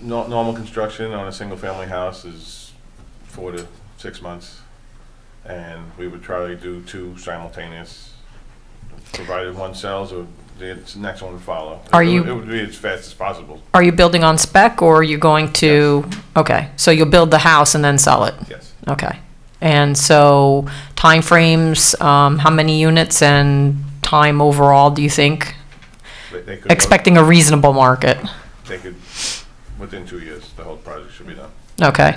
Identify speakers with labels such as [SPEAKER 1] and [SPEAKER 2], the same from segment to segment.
[SPEAKER 1] No, normal construction on a single-family house is four to six months. And we would try to do two simultaneous, provided one sells or the next one would follow.
[SPEAKER 2] Are
[SPEAKER 1] It would-
[SPEAKER 2] you-
[SPEAKER 1] It would be as fast as possible,
[SPEAKER 2] Are you building on spec or are you going to, okay, so you'll build the house and then sell it?
[SPEAKER 1] yes.
[SPEAKER 2] Okay. And so timeframes, um, how many units and time overall do you think?
[SPEAKER 1] They- they could go-
[SPEAKER 2] Expecting a reasonable market?
[SPEAKER 1] They could, within two years, the whole project should be done.
[SPEAKER 2] Okay.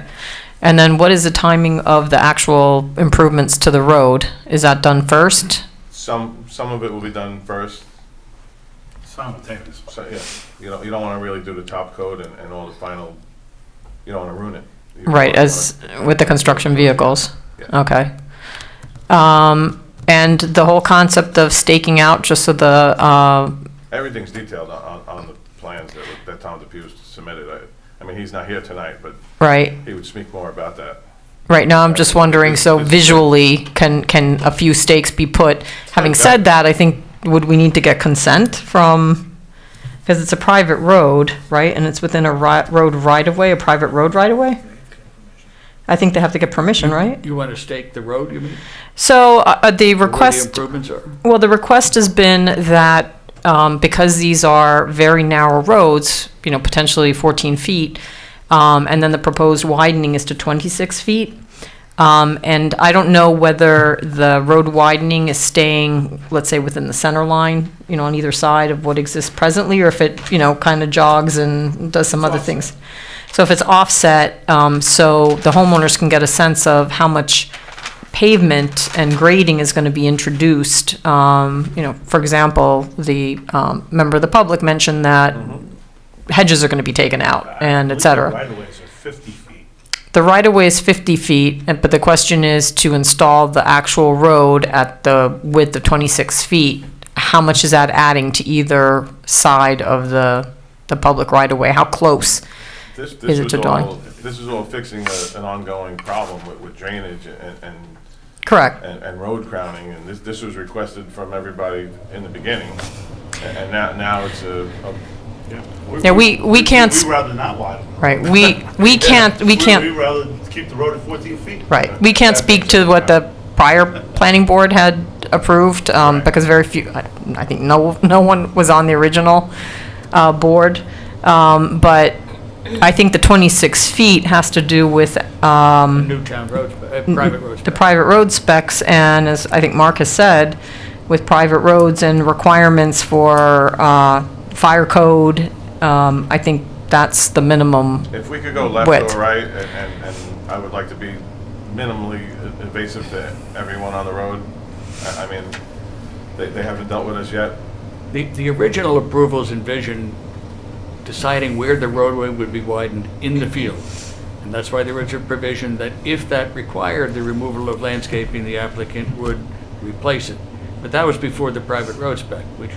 [SPEAKER 2] And then what is the timing of the actual improvements to the road? Is that done first?
[SPEAKER 1] Some, some of it will be done first,
[SPEAKER 3] Simultaneous.
[SPEAKER 1] so, yeah, you know, you don't wanna really do the top coat and, and all the final, you don't wanna ruin it. You
[SPEAKER 2] Right,
[SPEAKER 1] wanna-
[SPEAKER 2] as with the construction vehicles?
[SPEAKER 1] Yeah.
[SPEAKER 2] Okay. Um, and the whole concept of staking out, just so the, uh,
[SPEAKER 1] Everything's detailed on, on- on the plans that, were- that Tom DePew submitted. I, I mean, he's not here tonight, but
[SPEAKER 2] right,
[SPEAKER 1] he would speak more about that.
[SPEAKER 2] right now, I'm just wondering, so
[SPEAKER 1] It's- it's-
[SPEAKER 2] visually, can, can a few stakes be put? Having said that, I think, would we need to get consent from, because it's a private road, right? And it's within a ri- road right-of-way, a private road right-of-way? I think they have to get permission, right?
[SPEAKER 4] You want to stake the road, you mean?
[SPEAKER 2] So, uh, uh, the
[SPEAKER 4] Or where
[SPEAKER 2] request.
[SPEAKER 4] The improvements are?
[SPEAKER 2] Well, the request has been that, um, because these are very narrow roads, you know, potentially 14 feet, um, and then the proposed widening is to 26 feet. Um, and I don't know whether the road widening is staying, let's say, within the center line, you know, on either side of what exists presently, or if it, you know, kind of jogs and does some other things. So if it's offset, um, so the homeowners can get a sense of how much pavement and grading is going to be introduced. Um, you know, for example, the um, member of the public mentioned that hedges are going to be taken out and et cetera.
[SPEAKER 3] Right away, so 50 feet.
[SPEAKER 2] The right of way is 50 feet, and- but the question is to install the actual road at the width of 26 feet. How much is that adding to either side of the, the public right of way? How close?
[SPEAKER 1] This,
[SPEAKER 2] Is
[SPEAKER 1] this
[SPEAKER 2] it
[SPEAKER 1] was
[SPEAKER 2] to dawn?
[SPEAKER 1] all, this is all fixing a- an ongoing problem with, with drainage and, and,
[SPEAKER 2] Correct.
[SPEAKER 1] and- and road crowning. And this, this was requested from everybody in the beginning. A- And now, now it's a, a-
[SPEAKER 2] Yeah, we- we can't
[SPEAKER 3] We'd
[SPEAKER 2] sp-
[SPEAKER 3] rather not widen. it.
[SPEAKER 2] Right, we, we can't, we
[SPEAKER 3] We'd
[SPEAKER 2] can't,
[SPEAKER 3] rather keep the road at 14 feet.
[SPEAKER 2] right, we can't speak to what the prior planning board had approved, um, because very few, I I think no, no one was on the original, uh, board. Um, but I think the 26 feet has to do with, um,
[SPEAKER 4] Newtown roads, uh, private roads.
[SPEAKER 2] the private road specs, and as I think Mark has said, with private roads and requirements for uh, fire code, um, I think that's the minimum.
[SPEAKER 1] if we could go left
[SPEAKER 2] Width.
[SPEAKER 1] or right, and, and, and I would like to be minimally invasive to everyone on the road. I, I mean, they, they haven't dealt with us yet.
[SPEAKER 4] The, the original approvals envisioned deciding where the roadway would be widened in the field. And that's why there was a provision that if that required the removal of landscaping, the applicant would replace it. But that was before the private road spec, which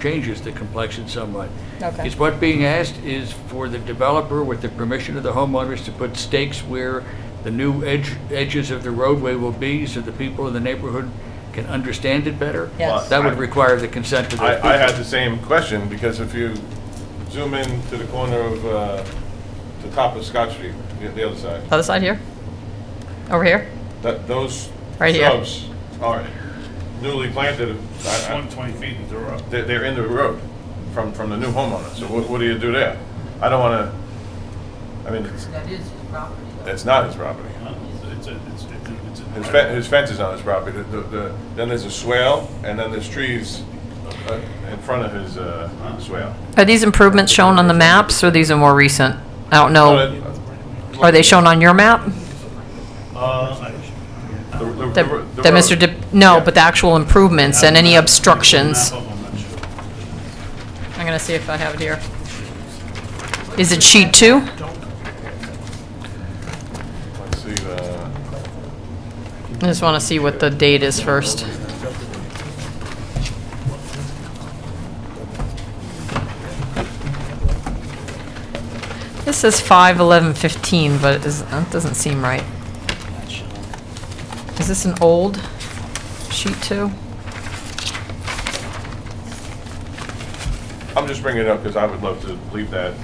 [SPEAKER 4] changes the complexion somewhat.
[SPEAKER 2] Okay.
[SPEAKER 4] Is what being asked is for the developer, with the permission of the homeowners, to put stakes where the new edge, edges of the roadway will be, so the people in the neighborhood can understand it better?
[SPEAKER 2] Yes.
[SPEAKER 4] That would require the consent of the
[SPEAKER 1] I, I had the same question, because if you zoom in to the corner of, uh, the top of Scott Street, the, the other side,
[SPEAKER 2] Other side here? Over here?
[SPEAKER 1] that, those
[SPEAKER 2] Right here.
[SPEAKER 1] shrubs are newly planted,
[SPEAKER 3] It's
[SPEAKER 1] I- I-
[SPEAKER 3] 120 feet into the road.
[SPEAKER 1] they're, they're in the road from, from the new homeowner, so what, what do you do there? I don't wanna, I mean, it's,
[SPEAKER 5] That is his property, though.
[SPEAKER 1] it's not his property.
[SPEAKER 3] It's a, it's a, it's a.
[SPEAKER 1] His fence, his fence is on his property, The- the- the- then there's a swale, and then there's trees uh, in front of his, uh, swale.
[SPEAKER 2] Are these improvements shown on the maps, or these are more recent? I
[SPEAKER 1] But,
[SPEAKER 2] don't know.
[SPEAKER 1] uh,
[SPEAKER 2] Are they shown on your map?
[SPEAKER 3] Uh,
[SPEAKER 1] the- the-
[SPEAKER 2] That
[SPEAKER 1] the
[SPEAKER 2] that Mr.
[SPEAKER 1] road.
[SPEAKER 2] Dip, no, but the actual improvements and any obstructions?
[SPEAKER 3] I'm not sure.
[SPEAKER 2] I'm going to see if I have it here. Is it sheet two?
[SPEAKER 1] Let's see, uh,
[SPEAKER 2] I just want to see what the date is first. This is five eleven fifteen, but it is- that doesn't seem right. Is this an old sheet two?
[SPEAKER 1] I'm just bringing it up because I would love to leave that